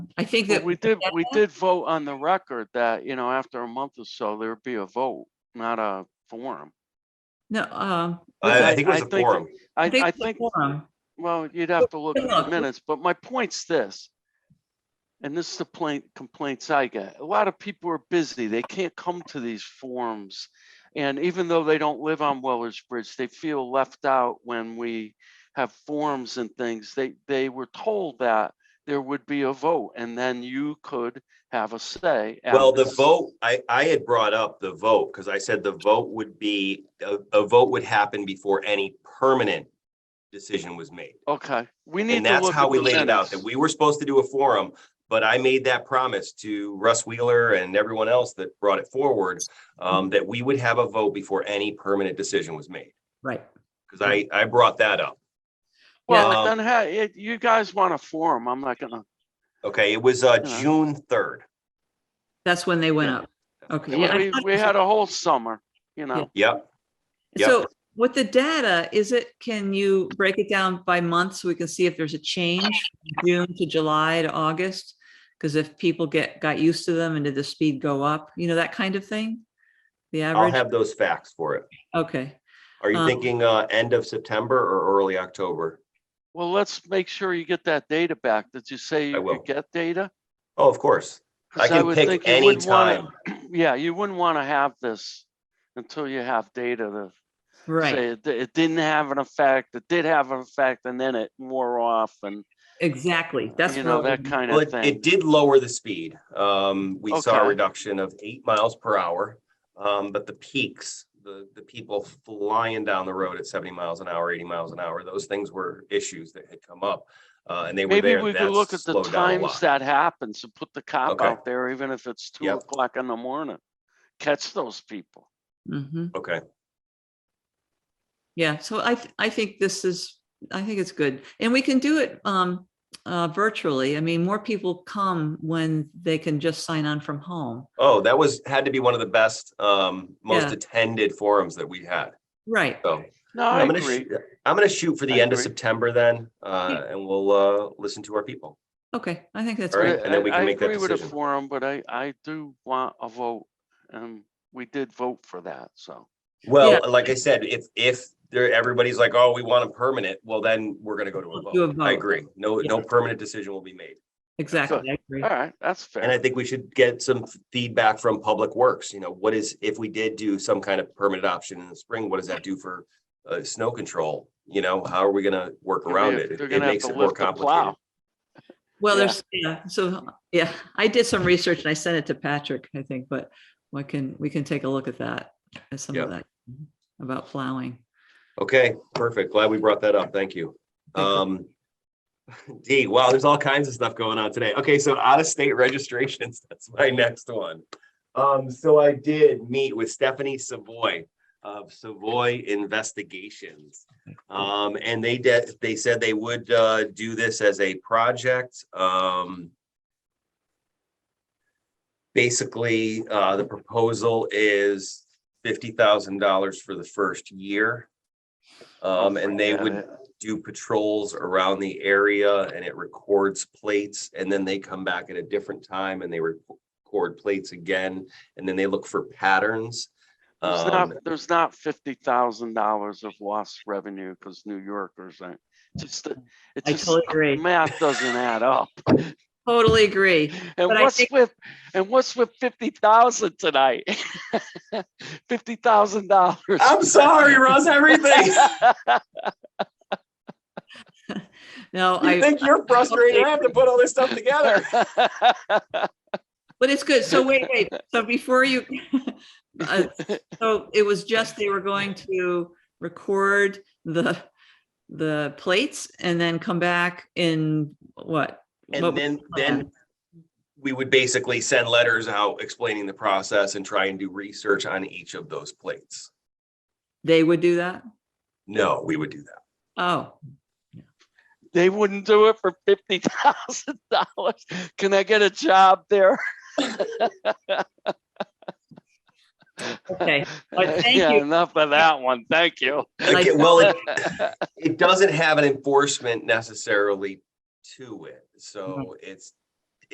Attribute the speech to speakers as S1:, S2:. S1: I think
S2: Well,
S1: that.
S2: We did, we did vote on the record that, you know, after a month or so, there'd be a vote, not a forum.
S1: No, um.
S2: I-
S3: I, I think it was
S2: I
S3: a
S2: think-
S3: forum.
S2: I, I think,
S1: forum.
S2: well, you'd have to look at
S1: Hang
S2: the
S1: on.
S2: minutes, but my point's this. And this is the plain complaints I get. A lot of people are busy. They can't come to these forums. And even though they don't live on Weller's Bridge, they feel left out when we have forums and things. They, they were told that there would be a vote and then you could have a say.
S3: Well, the
S2: after-
S3: vote, I, I had brought up the vote because I said the vote would be, a, a vote would happen before any permanent decision was made.
S2: Okay, we need to
S3: And that's
S2: look
S3: how
S2: at
S3: we
S2: the
S3: laid it out, that
S2: minutes.
S3: we were supposed to do a forum, but I made that promise to Russ Wheeler and everyone else that brought it forward,
S2: Mm-hmm.
S3: um, that we would have a vote before any permanent decision was made,
S1: Right.
S3: because I,
S2: Mm-hmm.
S3: I brought that up.
S2: Well,
S3: Yeah.
S2: then, hey, it- you guys want a forum, I'm not gonna,
S3: Okay, it was, uh,
S2: Yeah.
S3: June third.
S1: That's when they went up. Okay. yeah, I
S2: we,
S1: thought it
S2: we
S1: was-
S2: had a whole summer, you know,
S3: Yep, yeah.
S1: So with the data, is it, can you break it down by month so we can see if there's a change? from June to July to August? Because if people get, got used to them and did the speed go up, you know, that kind of thing? The
S3: I'll
S1: average?
S3: have those facts for it.
S1: Okay.
S3: Are you
S1: Um,
S3: thinking, uh, end of September or early October?
S2: well, let's make sure you get that data back. Did you say you
S3: will.
S2: could get data?
S3: Oh, of course. I
S2: 'Cause
S3: can
S2: would
S3: pick
S2: think you
S3: any
S2: wouldn't
S3: time.
S2: wanna- Yeah, you wouldn't wanna have this until you have data to say
S1: Right.
S2: it, di- it didn't have an effect, it did have an effect, and then it wore off and,
S1: Exactly. That's.
S2: you
S1: where I
S2: know,
S1: was-
S2: that kind
S3: Well,
S2: of
S3: it,
S2: thing.
S3: it did lower the speed. Um, we saw a
S2: Okay.
S3: reduction of eight miles per hour. Um, but the peaks, the, the people flying down the road at seventy miles an hour, eighty miles an hour, those things were issues that had come up. Uh, and they were
S2: Maybe
S3: there.
S2: we could
S3: That's
S2: look at the
S3: slowed down a
S2: times
S3: lot.
S2: that happens and put the cop
S3: Okay.
S2: out there, even if it's two
S3: Yep.
S2: o'clock in the morning. Catch those people.
S1: Mhm.
S3: Okay,
S1: Yeah, so I, th- I think this is, I think it's good. And we can do it um, uh, virtually. I mean, more people come when they can just sign on from home.
S3: oh, that was, had to be one of the best, um, most
S1: Yeah.
S3: attended forums that we had,
S1: Right.
S3: so.
S2: No, I
S3: I'm gonna
S2: agree.
S3: shoot- I'm gonna shoot for
S2: I
S3: the end of
S2: agree. Hmm.
S3: September then, uh, and we'll, uh, listen to our people.
S1: Okay, I think that's
S3: All
S1: great.
S3: right, and then
S2: I-
S3: we can
S2: I
S3: make that
S2: agree with the
S3: decision.
S2: Forum, but I, I do want a vote, and we did vote for that, so.
S3: Well, like I said, if, if there, everybody's like, oh, we want a permanent, well, then we're gonna go to a
S1: We'll do a
S3: vote. I
S1: vote.
S3: agree. No,
S1: Yeah.
S3: no permanent decision will be made.
S1: Exactly. I agree.
S2: All right, that's
S3: And I
S2: fair.
S3: think we should get some feedback from Public Works, you know, what is, if we did do some kind of permanent option in the spring, what does that do for uh, snow control? You know, how are we gonna work
S2: They're
S3: around
S2: gonna-
S3: it?
S2: they're
S3: It
S2: gonna have
S3: makes
S2: to
S3: it more
S2: lift the plow.
S3: complicated.
S1: Well,
S2: Yeah.
S1: there's, yeah, so, yeah, I did some research and I sent it to Patrick, I think, but we can, we can take a look at that, at some of that about plowing.
S3: Okay, perfect. Glad we brought that up. Thank you.
S1: Thank you.
S3: Um. D, wow, there's all kinds of stuff going on today. Okay, so out of state registrations, that's my next one. Um, so I did meet with Stephanie Savoy of Savoy Investigations. Um, and they did, they said they would uh do this as a project. Um. Basically, uh, the proposal is fifty thousand dollars for the first year. Um, and they
S2: Got
S3: would
S2: it.
S3: do patrols around the area and it records plates and then they come back at a different time and they record plates again and then they look for patterns.
S2: There's
S3: Um,
S2: not, there's not fifty thousand dollars of lost revenue because New Yorkers aren't, just, the- it
S1: I
S2: just,
S1: totally agree.
S2: math doesn't add up.
S1: Totally agree.
S2: And
S1: But I
S2: what's
S1: think-
S2: with, and what's with fifty thousand tonight? Fifty thousand dollars.
S3: I'm sorry, Russ, everything.
S1: No,
S3: You
S1: I,
S3: think you're frustrated? I have to put all this stuff together.
S1: but it's good. So wait, wait, so before you, uh, so it was just they were going to record the, the plates and then come back in what? what
S3: And
S1: was
S3: then,
S1: the plan?
S3: then we would basically send letters out explaining the process and try and do research on each of those plates.
S1: They would do that?
S3: No, we would do that.
S1: Oh,
S2: They wouldn't do it for fifty thousand dollars. Can I get a job there?
S1: okay. But thank
S2: Yeah,
S1: you.
S2: Enough of that one. Thank you.
S1: Like-
S3: Okay, well, it, it doesn't have an enforcement necessarily to it, so it's